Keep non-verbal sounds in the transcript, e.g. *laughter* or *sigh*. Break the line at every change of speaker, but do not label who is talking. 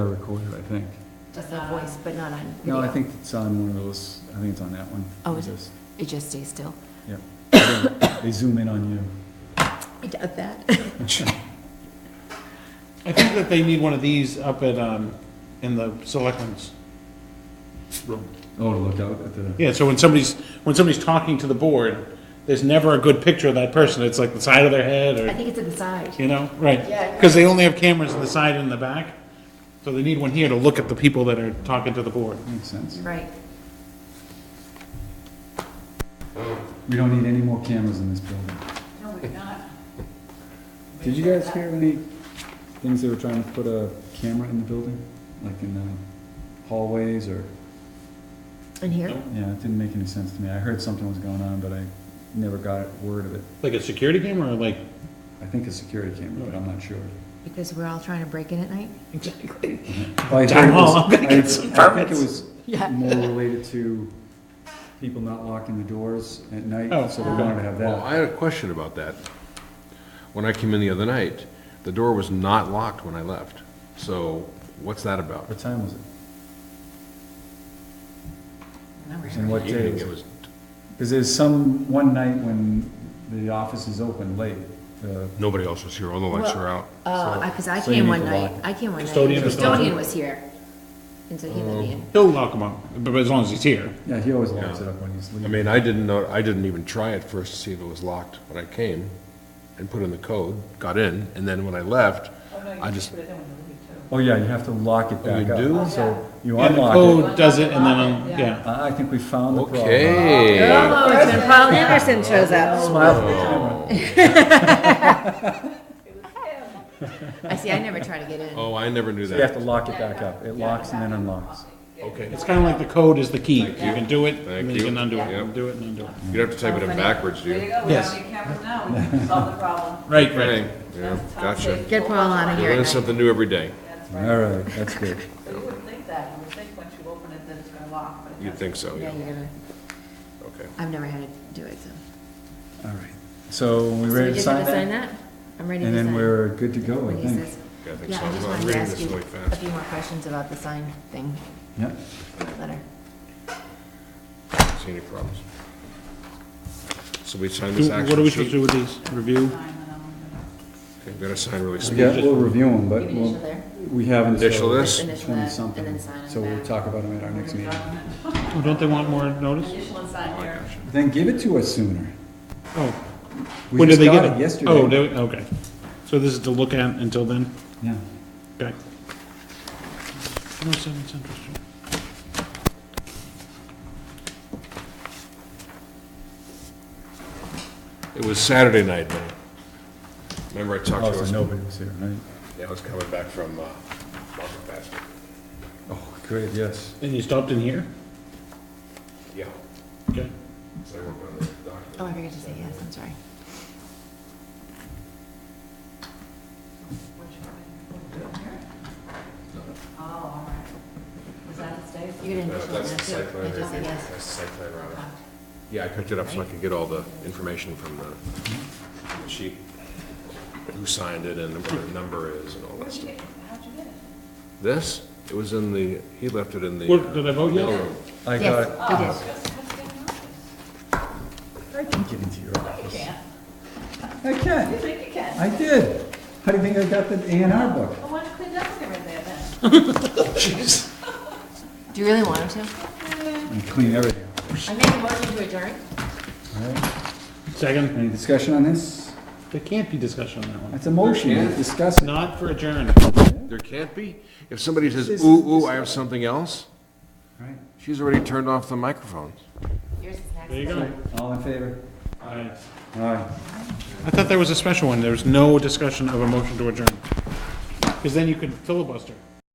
recorded, I think.
Just a voice, but not on video.
No, I think it's on one of those, I think it's on that one.
Oh, is it?
Just-
It just stays still.
Yeah. *coughs* They zoom in on you.
It
*laughs*
does that.
I think that they need one of these up at, um, in the selectmen's room.
Oh, to look out at the,
Yeah, so when somebody's, when somebody's talking to the board, there's never a good picture of that person. It's like the side of their head
I
or,
think it's at the side.
you know, right?
Yeah.
Because they only have cameras in the side and the back. So they need one here to look at the people that are talking to the board.
makes sense.
Right.
We don't need any more cameras in this building.
No, we're not.
Did you guys hear any things they were trying to put a camera in the building? Like in the hallways or,
In here?
yeah, it didn't make any sense to me. I heard something was going on, but I never got word of it.
Like a security camera or like?
I think a security camera, but I'm not sure.
Because we're all trying to break in at night?
Exactly.
Well, I
Town
think it was-
hall, I'm gonna
I-
get some permits.
I think
Yeah.
it was more related to people not locking the doors at night,
Oh.
so they wanted to have
Well,
that.
I had a question about that. When I came in the other night, the door was not locked when I left. So what's that about?
What time was it?
Remember,
And what day
Evening,
was
it
it?
was,
Because there's some, one night when the office is open late, the
nobody else was here, all the lights were out.
Uh, because I
So you
came
need
one
to
night,
lock.
I came one night.
Custodian was
Custodian
on.
was here. And so he let
Oh.
me in.
He'll lock them up, but as long as he's here.
Yeah, he always locks it up when he's
I
leaving.
mean, I didn't know, I didn't even try at first to see if it was locked when I came and put in the code, got in, and then when I left,
oh, no, you
I
just
just-
put it in when you leave, too.
Oh, yeah, you have to lock it
Oh, you
back up.
do?
So you
And the
unlock it. Uh,
code does it and then, um, yeah.
I I think we found the problem.
okay.
Oh, it's when Paul Anderson shows up.
Smile for the camera.
I see, I never try to get in.
Oh, I never knew
So you have
that.
to lock it back up. It locks and then unlocks.
Okay.
It's kind of like the code is the key. You can do it,
Thank
and then you
you.
can undo it,
Yeah.
do it and undo it.
You don't have to
Oh,
type it in backwards, do
There you
you?
go, we
Yes.
don't need cameras now, we can solve the problem.
Right, right.
Right, *laughs* yeah, gotcha.
Get Paul out of here.
Learn something new every day,
That's
All
right.
right, that's good.
So you wouldn't think that, you would think once you open it that it's gonna lock, but it
you'd
doesn't.
think so,
Yeah,
yeah,
you're gonna,
okay.
I've never had to do it, so.
All right. So we
So
ready to
we just
sign
have to sign
that?
that? I'm ready to sign.
And then we're good to go,
When
I
he
think.
says-
Yeah, I think
Yeah,
so.
I just
I'm
wanted to
reading
ask
this
you
really fast.
a few more questions about the sign thing,
Yep.
letter.
See any problems? So we sign
Do-
this
What are
actual
we supposed to
sheet?
do with these? Review?
Okay, We gotta sign really
We
small.
got, we'll review them,
You
but
can initial
we'll,
there.
we haven't. so
Initial this?
Initial that,
20
and
something.
then sign on
So
the
we'll
back.
talk about them at our next meeting.
Oh, don't they want more notice?
Additional sign here.
Then give it to us sooner.
Oh,
We
when did
just
they
got
get it?
Yesterday.
Oh, they- okay. So this is to look at until then?
Yeah.
Okay. 107 Central Street.
It was Saturday night, man. Remember I talked
Oh,
to you?
so nobody was here, right?
Yeah, I was coming back from, uh, Market Basket.
Oh, great, yes.
And you stopped in here?
Yeah.
Okay.
So I worked on the document.
Oh, I forgot to say yes, I'm sorry.
Which one? Oh, all right. Was that the state?
You're gonna
Uh,
initial
That's
that
the
too.
site plan.
You just say
review.
yes.
That's the site plan review. Yeah, I cooked it up so I could get all the information from the from the sheet. Who signed it and what the number is and all that stuff.
How'd you get it?
This, it was in the, he left it in the.
What, did I vote yet?
mailroom.
I
Yes,
got
you did.
it. I can give it to your
You
office.
can't.
I
You
can.
think you can?
I did. How do you think I got the A and R book?
Well, why don't you clean up everything there then?
Do you really want him to?
And clean everything.
I make a motion to adjourn.
All right.
Second?
Any discussion on this?
There can't be discussion on that one.
That's a motion.
Yeah.
Let's Discuss it.
Not for adjourn.
There can't be? If somebody says,
This-
ooh, ooh, I have something else,
Right.
she's already turned off the microphone.
Yours is next.
There you go.
All in favor?
Aye.
Aye.
I thought there was a special one, there was no discussion of a motion to adjourn. Because then you could filibuster.